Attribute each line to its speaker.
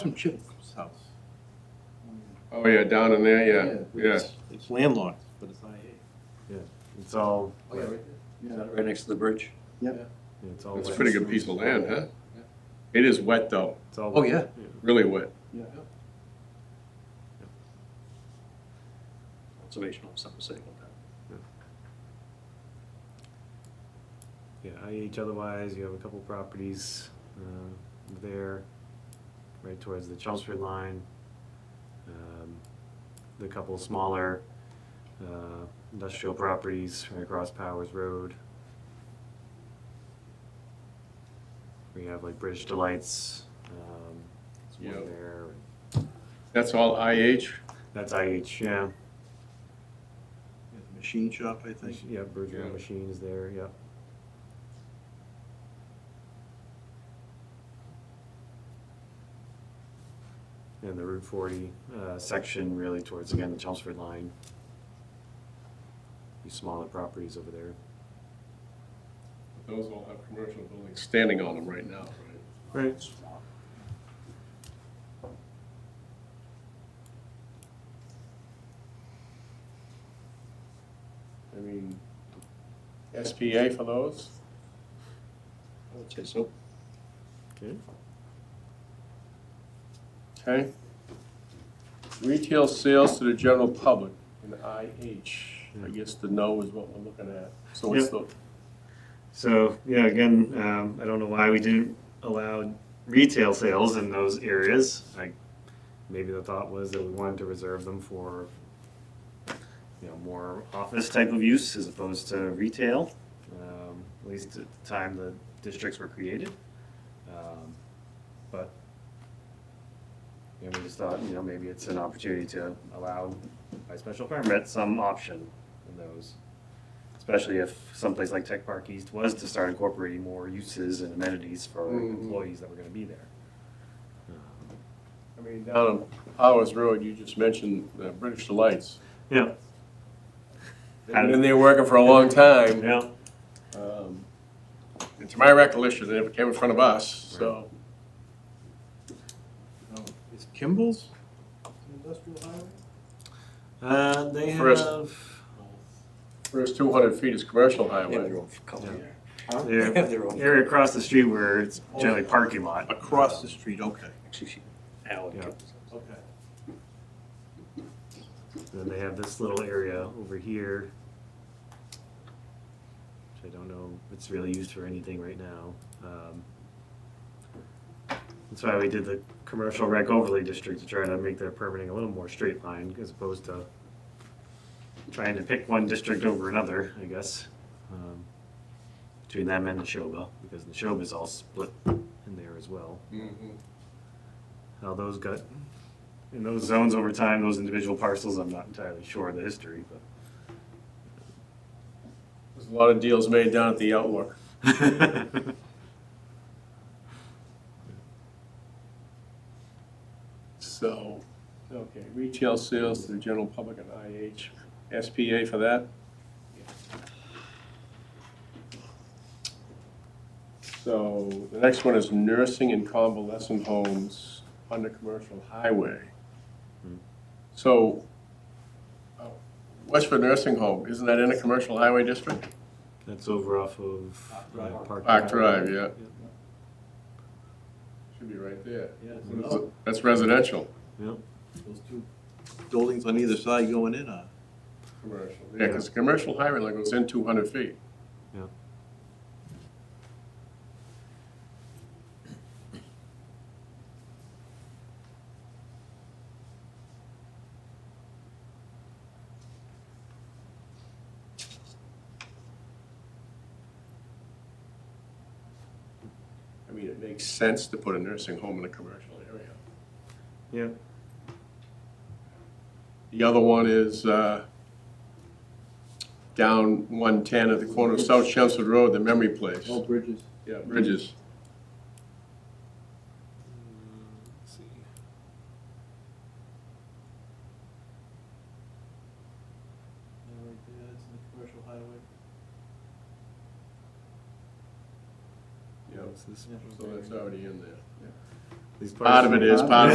Speaker 1: Some Chip's house.
Speaker 2: Oh, yeah, down in there, yeah, yeah.
Speaker 1: it's- It's landlocked, but it's IA.
Speaker 3: It's all,
Speaker 4: Right next to the bridge?
Speaker 3: it's all.
Speaker 2: That's a
Speaker 3: wet.
Speaker 2: pretty good piece of land, huh? It is wet, though,
Speaker 3: It's all
Speaker 4: Oh,
Speaker 3: wet.
Speaker 4: yeah.
Speaker 2: really wet.
Speaker 4: Conservation will have something to say about that.
Speaker 3: Yeah, IH otherwise, you have a couple properties, uh, there, right towards the Chelmsford line. Um, The couple smaller, uh, industrial properties right across Powers Road. We have like British Delights, um, there's
Speaker 2: Yeah.
Speaker 3: one there,
Speaker 2: That's all IH?
Speaker 3: that's IH, yeah.
Speaker 1: There's a Machine shop, I think.
Speaker 3: Yeah, Berger
Speaker 2: Yeah.
Speaker 3: Machines there, yeah. And the Route forty, uh, section really towards, again, the Chelmsford line. These smaller properties over there.
Speaker 2: Those all have commercial buildings standing on them right now, right?
Speaker 3: Right.
Speaker 2: I mean, SPA for those?
Speaker 4: I would say so.
Speaker 3: Okay.
Speaker 2: Okay. Retail sales to the general public in IH. I guess the no is what we're looking at. So it's the,
Speaker 3: So, yeah, again, um, I don't know why we didn't allow retail sales in those areas. Like, maybe the thought was that we wanted to reserve them for, you know, more office type of use as opposed to retail, um, at least at the time the districts were created. Um, But, you know, we just thought, you know, maybe it's an opportunity to allow by special permit some option in those especially if someplace like Tech Park East was to start incorporating more uses and amenities for
Speaker 2: Mhm.
Speaker 4: Mm-hmm.
Speaker 3: employees that were gonna be there. Um,
Speaker 2: I mean, down on Powers Road, you just mentioned uh, British Delights.
Speaker 3: Yeah.
Speaker 2: They've been in there working for a long time.
Speaker 3: Yeah,
Speaker 2: Um, And to my recollection, they never came in front of us, so.
Speaker 1: No, Is Kimball's an industrial highway?
Speaker 3: uh, they
Speaker 2: First-
Speaker 3: have,
Speaker 2: First two hundred feet is commercial
Speaker 4: They have
Speaker 2: highway.
Speaker 4: their own color. They
Speaker 3: their
Speaker 4: have their own.
Speaker 3: area across the street where it's generally parking lot.
Speaker 1: Across the street, okay,
Speaker 4: Actually, she, Alan.
Speaker 3: Yeah.
Speaker 1: okay.
Speaker 3: Then they have this little area over here. Which I don't know, if it's really used for anything right now. Um, That's why we did the commercial rec overlay district to try to make their permitting a little more straight line as opposed to trying to pick one district over another, I guess. um, Between them and Neshoba, because Neshoba's all split in there as well
Speaker 2: Mhm.
Speaker 3: how those got in those zones over time, those individual parcels, I'm not entirely sure of the history,
Speaker 2: There's a lot of deals made down at the Outlook.
Speaker 3: but.
Speaker 2: So, okay, retail sales to the general public and IH, SPA for that? So, the next one is nursing and convalescent homes on the commercial highway.
Speaker 3: Hmm.
Speaker 2: So, uh, Westford Nursing Home, isn't that in a commercial highway district?
Speaker 3: That's over off of
Speaker 1: Park
Speaker 3: uh,
Speaker 1: Drive.
Speaker 3: Park.
Speaker 2: Park Drive, yeah. Should be right there.
Speaker 1: Yeah, it's
Speaker 2: That's-
Speaker 1: about-
Speaker 2: That's residential,
Speaker 3: Yep,
Speaker 1: those two buildings on either side going in are.
Speaker 2: commercial. Yeah, because commercial highway like goes in two hundred feet.
Speaker 3: yep.
Speaker 2: I mean, it makes sense to put a nursing home in a commercial area.
Speaker 3: Yeah.
Speaker 2: The other one is uh, down 110 at the corner of South Chelmsford Road, the Memory Place.
Speaker 1: All bridges.
Speaker 2: Yeah, Bridges.
Speaker 1: Yeah, right there, that's in the commercial highway.
Speaker 2: Yeah,
Speaker 3: This-
Speaker 2: so that's already in there.
Speaker 3: these
Speaker 2: Part of it
Speaker 3: parcels-
Speaker 2: is, part of